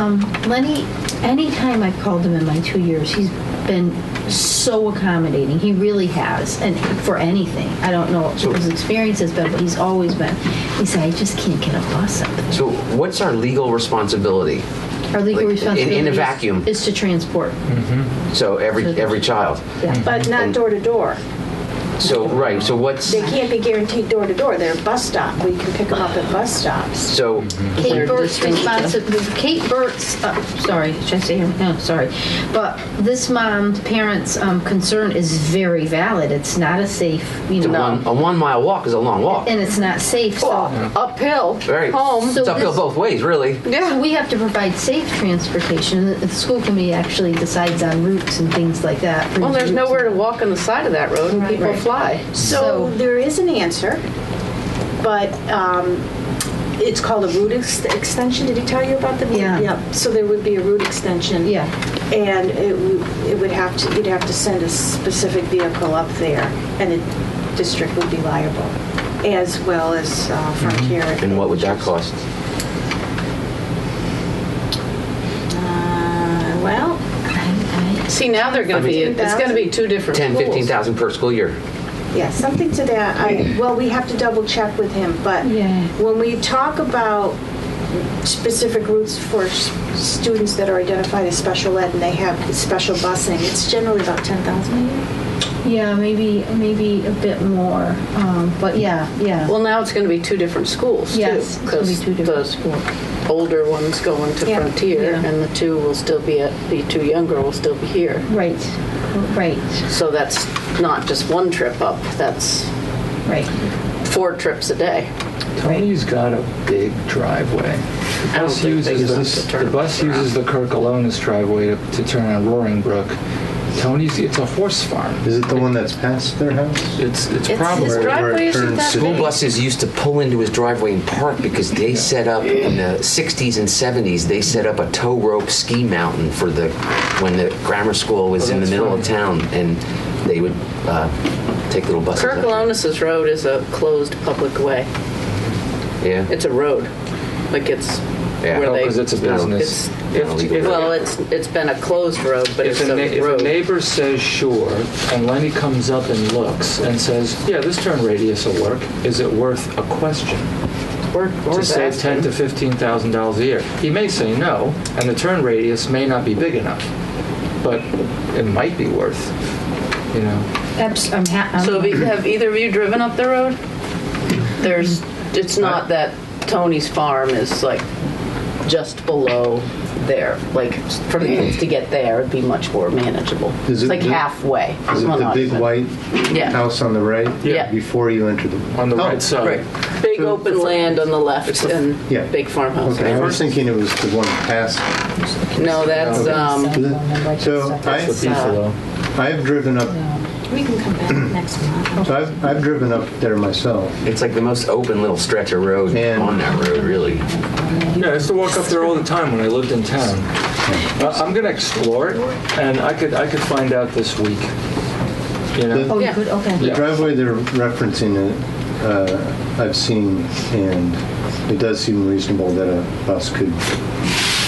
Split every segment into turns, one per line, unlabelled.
um, Lenny, anytime I've called him in my two years, he's been so accommodating. He really has, and for anything. I don't know what his experience has been, but he's always been. He said, I just can't get a bus up there.
So what's our legal responsibility?
Our legal
Like, in- in a
responsibility is-
vacuum.
is to transport.
So every every child.
Yeah.
But not door to door.
So right. So what's
They can't be guaranteed door to door. They're a bus stop. We can pick them up at bus stops.
so
Kate Burt's responsibility, Kate Burt's, uh, sorry, should I say her? No, sorry. But this mom's parents' um, concern is very valid. It's not a safe, you
the
know,
one, a one mile walk is a long walk.
and it's not safe. So,
uphill
Very
home.
So
It's uphill
this-
both ways, really.
so we have to provide safe transportation. The the school committee actually decides on routes and things like that.
Well, there's nowhere to walk on the side of that road, and people
Right.
fly.
So
So-
there is an answer, but um, it's called a route ex- extension. Did he tell you about the? route?
Yeah.
So there would be a route extension.
Yeah.
And it, w- it would have to, you'd have to send a specific vehicle up there, and the district would be liable, as well as uh, Frontier.
Mm-hmm. And what would that cost?
Uh, Well,
See, now they're going to be, it's going to be two different
Ten,
schools.
fifteen thousand per school year.
Yeah, something to that. I, well, we have to double check with him, but
Yeah.
when we talk about specific routes for s- students that are identified as special ed and they have special busing, it's generally about 10,000 a year.
Yeah, maybe, maybe a bit more. Um, but yeah, yeah.
Well, now it's going to be two different schools, too.
Yes, it's gonna be two different
Because the older one's going to
Yeah.
Frontier,
Yeah.
and the two will still be, at the two younger will still be here.
right, right,
So that's not just one trip up, that's
right.
four trips a day.
Tony's got a big driveway. The
I don't
bus
think they
uses
use it
this,
to turn
the bus
around.
uses the Kirk Alonis driveway to, to turn on Roaring Brook. Tony's, it's a horse farm.
Is it the one that's past their house?
It's, it's
It's-
probably,
His
Where- where it
driveway isn't
turns
that
to-
big.
School buses used to pull into his driveway and park because they set up in the 60s and 70s. They set up a tow rope ski mountain for the when the grammar school was
Oh,
in the
that's
middle of
funny.
town, and they would uh, take little buses.
Kirk
up there.
Alonis' road is a closed public way.
Yeah.
It's a road, like it's
Yeah.
where
Oh,
they.
'cause it's a
No,
business.
It's,
If- if-
well, it's, it's been a closed road, but
If
it's
a, na-
a
if a
road.
neighbor says sure, and Lenny comes up and looks and says, yeah, this turn radius will work, is it worth a question?
Or- or
To save
that.
ten to fifteen thousand dollars a year. He may say no, and the turn radius may not be big enough, but it might be worth, you know.
Abs- I'm ha- I'm-
So have, you- have either of you driven up the road? There's, it's not that Tony's farm is like just below there. Like for the kids to get there, it'd be much more manageable. It's
Is it
like
the-
halfway.
Is it
Well,
the
not
big
even.
white
Yeah.
house on the right?
Yeah.
Before you enter the.
On the
Oh,
right side.
Right. Big open land on the left and
Yeah.
big farmhouse.
Okay, I was thinking it was the one past.
No, that's, um,
So I,
Buffalo.
I've driven up,
We can come back next month.
so I've, I've driven up there myself.
It's like the most open little stretch of road
And-
on that road, really.
Yeah, I used to walk up there all the time when I lived in town. Uh, I'm gonna explore it, and I could I could find out this week. You know,
oh, you
Yeah.
could, okay.
The
Yeah.
driveway they're referencing, it, uh, I've seen, and it does seem reasonable that a bus could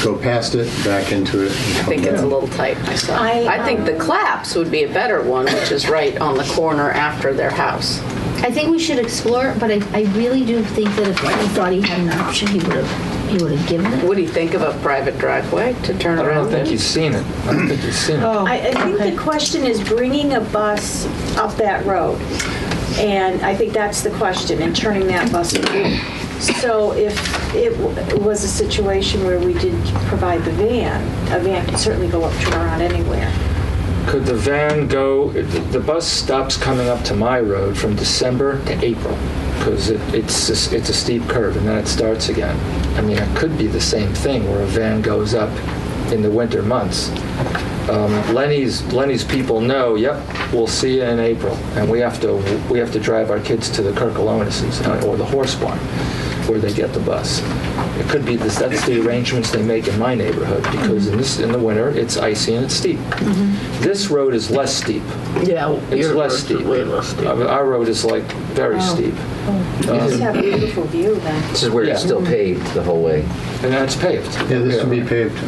go past it, back into it.
I think it's a little tight myself.
I,
I think the claps would be a better one, which is right on the corner after their house.
I think we should explore it, but I, I really do think that if he thought he had an option, he would have he would have given it.
What do you think of a private driveway to turn
I
around?
don't think you've seen it. I don't think you've seen it.
I, I think the question is bringing a bus up that road. And I think that's the question, and turning that bus around. So if it w- was a situation where we did provide the van, a van could certainly go up, turn around anywhere.
Could the van go? The bus stops coming up to my road from December to April because it, it's a, s- it's a steep curve, and then it starts again. I mean, it could be the same thing where a van goes up in the winter months. Um, Lenny's Lenny's people know. Yep, we'll see you in April, and we have to we have to drive our kids to the Kirkalonis's uh, or the horse barn where they get the bus. It could be this, that's the arrangements they make in my neighborhood because in this in the winter it's icy and it's steep. This road is less steep.
Mm-hmm. Yeah.
It's
your
less
road's
steep.
Way less steep. Oh.
Our, our road is like very steep, Um,
You just have a beautiful view then.
This is where
Yeah.
it's still paved the whole way.
and that's paved.
Yeah, this would be paved.